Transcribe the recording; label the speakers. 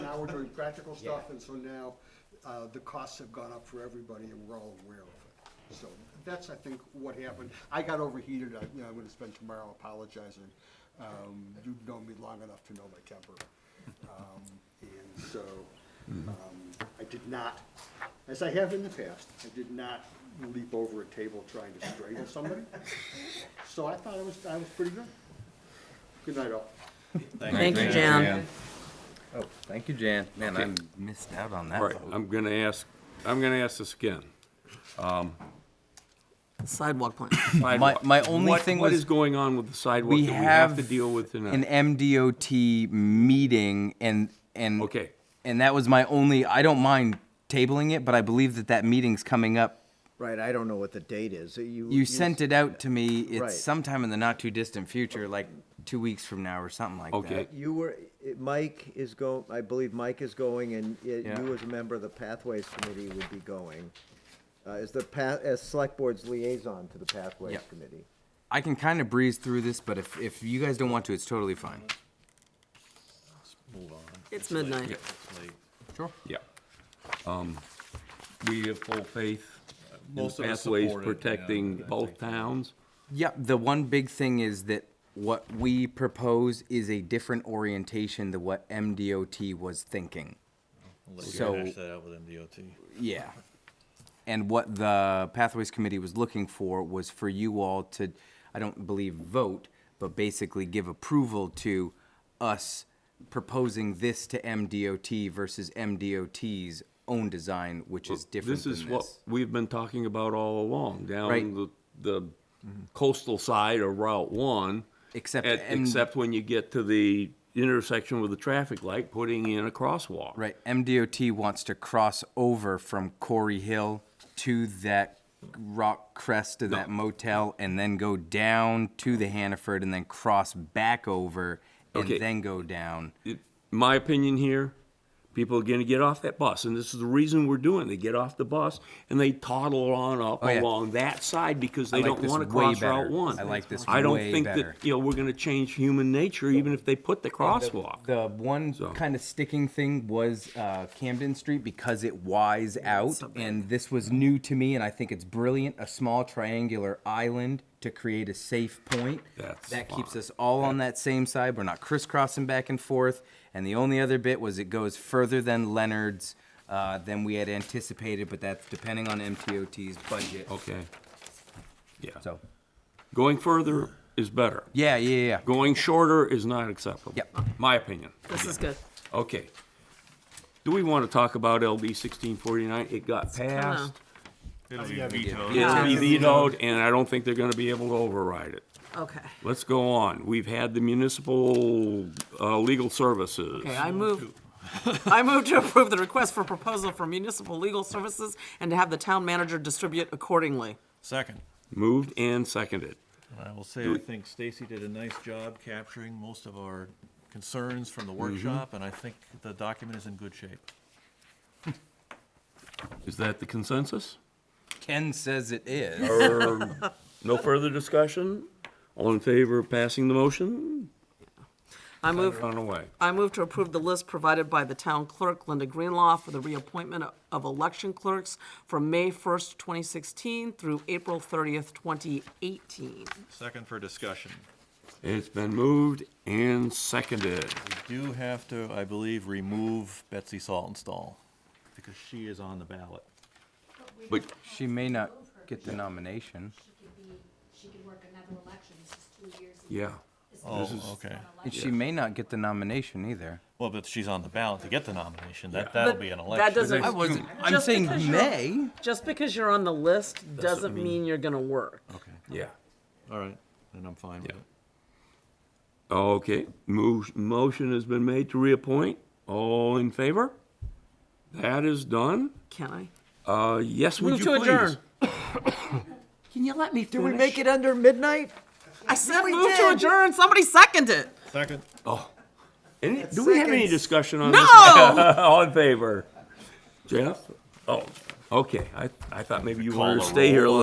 Speaker 1: we're doing practical stuff,
Speaker 2: Yeah.
Speaker 1: and so now, uh, the costs have gone up for everybody, and we're all aware of it. So that's, I think, what happened. I got overheated, I, you know, I'm gonna spend tomorrow apologizing. Um, you've known me long enough to know my temper. Um, and so, um, I did not, as I have in the past, I did not leap over a table trying to strangle somebody. So I thought I was, I was pretty good. Good night, all.
Speaker 3: Thank you, Jan.
Speaker 4: Oh, thank you, Jan. Man, I missed out on that
Speaker 5: Right,
Speaker 4: vote.
Speaker 5: I'm gonna ask, I'm gonna ask this again. Um,
Speaker 3: Sidewalk plan.
Speaker 4: My,
Speaker 5: Sidewalk.
Speaker 4: my only
Speaker 5: What-
Speaker 4: thing
Speaker 5: What is
Speaker 4: was,
Speaker 5: going on with the sidewalk
Speaker 4: we
Speaker 5: that we
Speaker 4: have
Speaker 5: have to deal with
Speaker 4: an
Speaker 5: tonight?
Speaker 4: MDOT meeting and, and.
Speaker 5: Okay.
Speaker 4: And that was my only, I don't mind tabling it, but I believe that that meeting's coming up.
Speaker 6: Right, I don't know what the date is. You.
Speaker 4: You sent it out to me,
Speaker 6: Right.
Speaker 4: it's sometime in the not too distant future, like two weeks from now or something like that.
Speaker 5: Okay.
Speaker 6: You were, it- Mike is go, I believe Mike is going and it-
Speaker 4: Yeah.
Speaker 6: you as a member of the Pathways Committee would be going. Uh, as the pa, as Select Board's liaison to the Pathways
Speaker 4: Yeah.
Speaker 6: Committee.
Speaker 4: I can kind of breeze through this, but if, if you guys don't want to, it's totally fine.
Speaker 3: It's midnight.
Speaker 4: Sure.
Speaker 5: Yeah. Um, We have full faith in
Speaker 7: Most
Speaker 5: the
Speaker 7: of us
Speaker 5: pathways
Speaker 7: support it, yeah,
Speaker 5: protecting
Speaker 7: I
Speaker 5: both
Speaker 7: think.
Speaker 5: towns.
Speaker 4: Yep, the one big thing is that what we propose is a different orientation than what MDOT was thinking.
Speaker 7: I'll let you
Speaker 4: So-
Speaker 7: hash that out with MDOT.
Speaker 4: Yeah. And what the Pathways Committee was looking for was for you all to, I don't believe vote, but basically give approval to us proposing this to MDOT versus MDOT's own design, which is different
Speaker 5: This
Speaker 4: than
Speaker 5: is what
Speaker 4: this.
Speaker 5: we've been talking about all along,
Speaker 4: Right.
Speaker 5: down the, the coastal side of Route One.
Speaker 4: Except
Speaker 5: at-
Speaker 4: M-
Speaker 5: Except when you get to the intersection with the traffic light, putting in a crosswalk.
Speaker 4: Right, MDOT wants to cross over from Corey Hill to that rock crest of that motel and then go down to the Hannaford and then cross back over and
Speaker 5: Okay.
Speaker 4: then go down.
Speaker 5: it- my opinion here, people are gonna get off that bus, and this is the reason we're doing, it. they get off the bus and they toddle on up
Speaker 4: Oh, yeah.
Speaker 5: along that side because they
Speaker 4: like
Speaker 5: don't
Speaker 4: this
Speaker 5: wanna
Speaker 4: way
Speaker 5: cross
Speaker 4: better.
Speaker 5: Route One.
Speaker 4: I like this
Speaker 5: I don't
Speaker 4: way
Speaker 5: think
Speaker 4: better.
Speaker 5: that, you know, we're gonna change human nature even if they put the crosswalk.
Speaker 4: The one
Speaker 5: So-
Speaker 4: kind of sticking thing was uh, Camden Street because it Ys out, and this was new to me, and I think it's brilliant. A small triangular island to create a safe point.
Speaker 5: That's
Speaker 4: that keeps
Speaker 5: fine.
Speaker 4: us all on that same side. We're not crisscrossing back and forth. And the only other bit was it goes further than Leonard's uh, than we had anticipated, but that's depending on MTOT's budget.
Speaker 5: Okay. Yeah.
Speaker 4: So,
Speaker 5: Going further is better.
Speaker 4: yeah, yeah, yeah.
Speaker 5: Going shorter is not acceptable.
Speaker 4: Yep.
Speaker 5: My opinion.
Speaker 3: This is good.
Speaker 5: Okay. Do we wanna talk about LD sixteen forty-nine? It got passed.
Speaker 7: It'll be vetoed.
Speaker 5: It's be
Speaker 3: Yeah.
Speaker 5: vetoed, and I don't think they're gonna be able to override it.
Speaker 3: Okay.
Speaker 5: Let's go on. We've had the municipal uh, legal services.
Speaker 3: Okay, I move, I move to approve the request for proposal for municipal legal services and to have the town manager distribute accordingly.
Speaker 7: Second.
Speaker 5: Moved and seconded.
Speaker 7: And I will say, I think Stacy did a nice job capturing most of our concerns from the workshop, and I think the document is in good shape.
Speaker 5: Is that the consensus?
Speaker 4: Ken says it is.
Speaker 5: Or no further discussion? All in favor of passing the motion?
Speaker 3: I move,
Speaker 5: Run away.
Speaker 3: I move to approve the list provided by the town clerk, Linda Greenlaw, for the reappointment of election clerks from May 1st, 2016 through April 30th, 2018.
Speaker 7: Second for discussion.
Speaker 5: It's been moved and seconded.
Speaker 7: We do have to, I believe, remove Betsy Saltonstall, because she is on the ballot.
Speaker 5: But
Speaker 4: She may not get the nomination.
Speaker 8: she could be, she could work another election, this is two years. in-
Speaker 5: yeah,
Speaker 8: this is
Speaker 7: Oh,
Speaker 8: an
Speaker 7: okay.
Speaker 4: And
Speaker 8: election.
Speaker 4: she may not get the nomination either.
Speaker 7: Well, but she's on the ballot to get the nomination, that, that'll be an election.
Speaker 3: That doesn't.
Speaker 4: I wasn't. I'm
Speaker 3: just
Speaker 4: saying
Speaker 3: because you're-
Speaker 4: may.
Speaker 3: Just because you're on the list doesn't mean you're gonna work.
Speaker 7: Okay,
Speaker 5: yeah.
Speaker 7: all right, then I'm fine with it.
Speaker 5: Okay, mo- motion has been made to reappoint. All in favor? That is done.
Speaker 3: Can I?
Speaker 5: Uh, yes, would
Speaker 3: Move
Speaker 5: you
Speaker 3: to
Speaker 5: please?
Speaker 3: adjourn.
Speaker 4: Can you let me
Speaker 6: Do we make it under midnight?
Speaker 3: I said move to adjourn. Somebody second it.
Speaker 7: Second.
Speaker 5: Any, do we have any discussion on this?
Speaker 3: No!
Speaker 5: All in favor? Jeff? Oh, okay. I, I thought maybe you
Speaker 7: Call
Speaker 5: wanted
Speaker 7: the
Speaker 5: to stay here a
Speaker 7: roll.
Speaker 5: little